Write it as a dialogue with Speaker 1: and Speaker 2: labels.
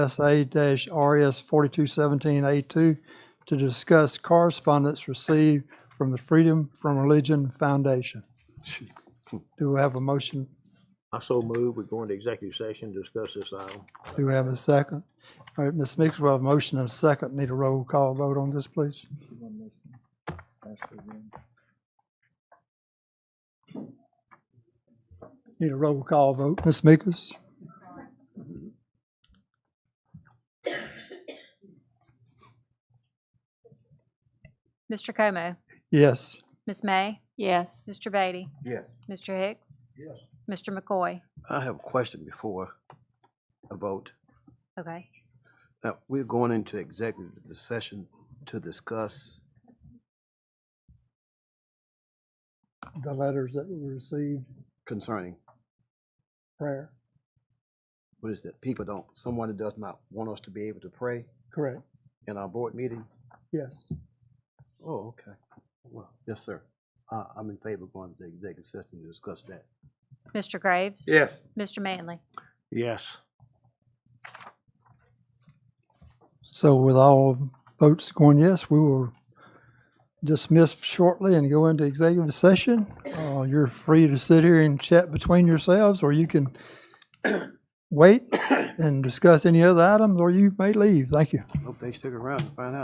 Speaker 1: SA-RS 4217A2 to discuss correspondence received from the Freedom From Religion Foundation. Do we have a motion?
Speaker 2: I so move, we go into executive session, discuss this item.
Speaker 1: Do we have a second? All right, Ms. Meeks, we have a motion and a second. Need a roll call vote on this, please. Need a roll call vote. Ms. Meeks?
Speaker 3: Mr. Como,
Speaker 1: Yes.
Speaker 3: Ms. May,
Speaker 4: Yes.
Speaker 3: Mr. Beatty,
Speaker 2: Yes.
Speaker 3: Mr. Hicks,
Speaker 2: Yes.
Speaker 3: Mr. McCoy.
Speaker 5: I have a question before a vote.
Speaker 3: Okay.
Speaker 5: Now, uh, we're going into executive session to discuss,
Speaker 1: The letters that we received
Speaker 5: concerning,
Speaker 1: prior.
Speaker 5: what is that? People don't, someone that does not want us to be able to pray
Speaker 1: Correct.
Speaker 5: in our board meeting?
Speaker 1: Yes.
Speaker 5: Oh, okay. Well, yes, sir. I, I'm in favor of going to the executive session to discuss that.
Speaker 3: Mr. Graves,
Speaker 2: Yes.
Speaker 3: Mr. Manley.
Speaker 2: Yes.
Speaker 1: So with all votes going yes, we will dismiss shortly and go into executive session. Uh, You're free to sit here and chat between yourselves, or you can wait and discuss any other items, or you may leave. Thank you.
Speaker 5: Hope they stick around and find out.